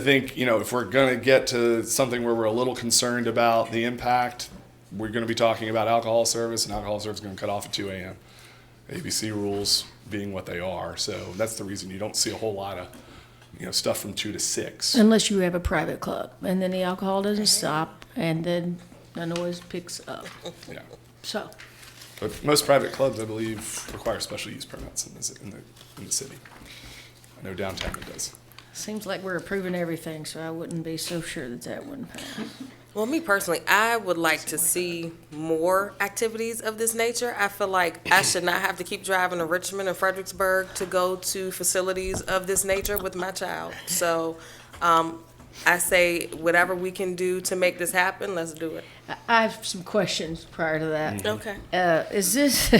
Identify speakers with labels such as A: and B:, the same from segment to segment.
A: I think, you know, if we're going to get to something where we're a little concerned about the impact, we're going to be talking about alcohol service, and alcohol service is going to cut off at 2 a.m. ABC rules being what they are. So that's the reason you don't see a whole lot of, you know, stuff from 2 to 6.
B: Unless you have a private club, and then the alcohol doesn't stop, and then the noise picks up.
A: Yeah.
B: So,
A: But most private clubs, I believe, require special use permits in the, in the, in the city. I know downtown it does.
B: seems like we're approving everything, so I wouldn't be so sure that that wouldn't pass.
C: Well, me personally, I would like to see more activities of this nature. I feel like I should not have to keep driving to Richmond and Fredericksburg to go to facilities of this nature with my child. So, um, I say whatever we can do to make this happen, let's do it.
B: I- I have some questions prior to that.
C: Okay.
B: Uh, is this,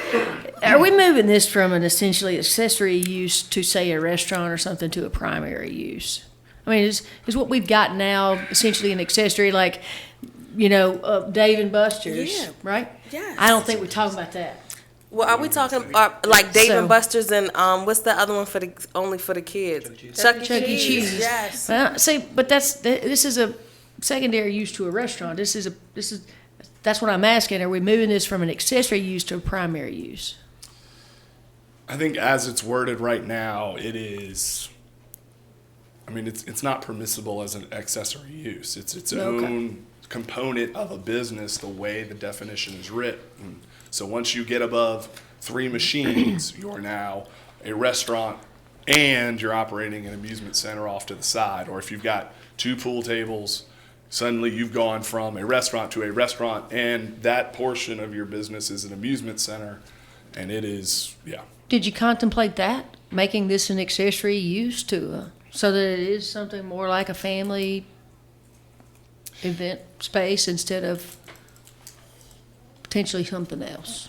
B: are we moving this from an essentially accessory use to say a restaurant or something to a primary use? I mean, is, is what we've got now essentially an accessory like, you know, uh, Dave and Buster's,
C: Yeah.
B: right?
C: Yes.
B: I don't think we talk about that.
C: Well, are we talking, uh, like Dave
B: So-
C: and Buster's and, um, what's the other one for the, only for the kids? Chuck E.
B: Chuck E. Cheese.
C: Yes.
B: Well, see, but that's th- this is a secondary use to a restaurant. This is a this is that's what I'm asking. Are we moving this from an accessory use to a primary use?
A: I think as it's worded right now, it is. I mean, it's it's not permissible as an accessory use. It's its
B: Okay.
A: own component of a business. The way the definition is written. So once you get above three machines, you are now a restaurant, and you're operating an amusement center off to the side. Or if you've got two pool tables, suddenly you've gone from a restaurant to a restaurant, and that portion of your business is an amusement center, and it is yeah.
B: Did you contemplate that making this an accessory use to a, so that it is something more like a family event space instead of potentially something else?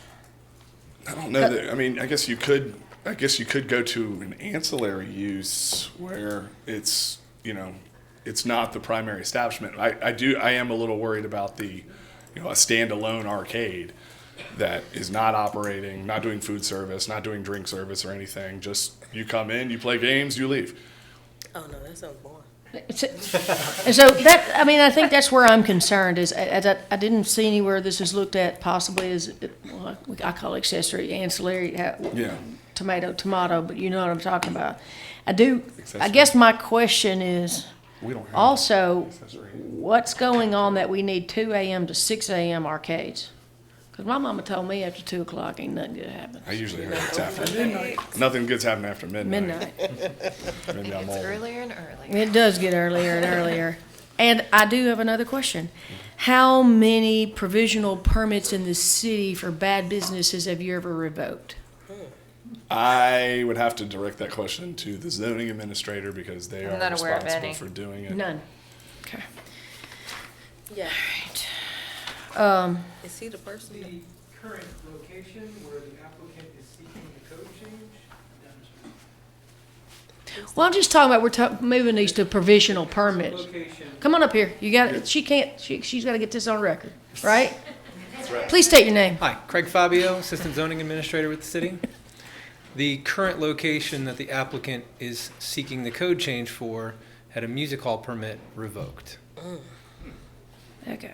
A: I don't know that. I mean, I guess you could. I guess you could go to an ancillary use where it's you know, it's not the primary establishment. I, I do. I am a little worried about the, you know, a standalone arcade that is not operating, not doing food service, not doing drink service or anything. Just you come in, you play games, you leave.
C: Oh, no, that sounds boring.
B: It's- And so that, I mean, I think that's where I'm concerned is, I, I, I didn't see anywhere this is looked at possibly as, well, I call accessory, ancillary, how-
A: Yeah.
B: tomato, tomato, but you know what I'm talking about. I do, I
A: Accessory.
B: guess my question is
A: We don't have
B: also,
A: accessory.
B: what's going on that we need two AM to six AM arcades? Cause my mama told me after two o'clock ain't nothing gonna happen,
A: I usually heard it's after midnight. Nothing good's happening after midnight.
B: midnight.
A: Maybe I'm old.
D: earlier and earlier.
B: It does get earlier and earlier. And I do have another question. How many provisional permits in the city for bad businesses have you ever revoked?
A: I would have to direct that question to the zoning administrator because they
D: I'm
A: are
D: not aware of
A: responsible
D: any.
A: for doing it.
B: None. Okay.
C: Yeah.
B: Um,
C: Is he the person?
E: The current location where the applicant is seeking the code change?
B: well, I'm just talking about, we're ta- moving these to provisional permits.
E: Location,
B: Come on up here. You got, it. she can't, she, she's gotta get this on record, right? Please state your name.
E: Hi, Craig Fabio, Assistant Zoning Administrator with the city. The current location that the applicant is seeking the code change for had a music hall permit revoked.
B: Okay.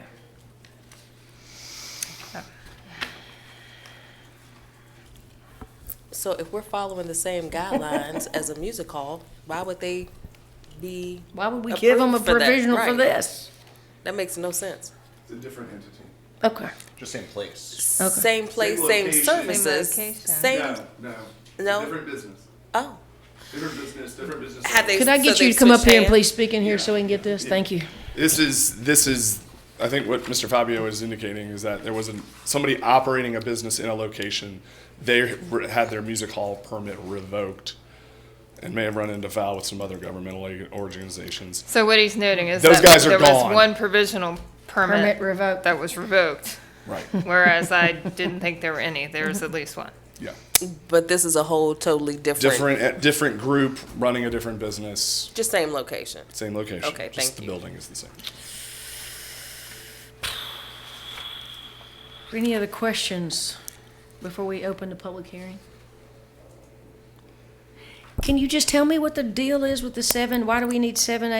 C: So if we're following the same guidelines as a music hall, why would they be,
B: Why would we give them a
C: Approved for that,
B: provisional for
C: right.
B: this?
C: that makes no sense.
A: It's a different entity.
B: Okay.
F: Just same place.
B: Okay.
C: Same place, same
A: location.
C: services,
D: Same location.
C: same,
A: no.
C: No?
A: Different business.
C: oh.
A: Different business, different business.
C: Had they-
B: Could I
C: so
B: get
C: they
B: you to come up
C: switched
B: here and
C: hands?
B: please speak in here so we can get this? Thank you.
A: This is, this is, I think what Mr. Fabio is indicating is that there was an, somebody operating a business in a location. They re- had their music hall permit revoked and may have run into foul with some other governmental a- organizations.
D: So what he's noting is
A: Those
D: that
A: guys are
D: there
A: gone.
D: was one provisional permit,
B: Permit revoked.
D: that was revoked,
A: Right,
D: whereas I didn't think there were any. There was at least one.
A: yeah.
C: But this is a whole totally different,
A: Different, eh, different group running a different business,
C: just same location.
A: same location.
C: Okay,
A: Just
C: thank
A: the
C: you.
A: building is the same.
B: Any other questions before we open the public hearing? Can you just tell me what the deal is with the seven? Why do we need seven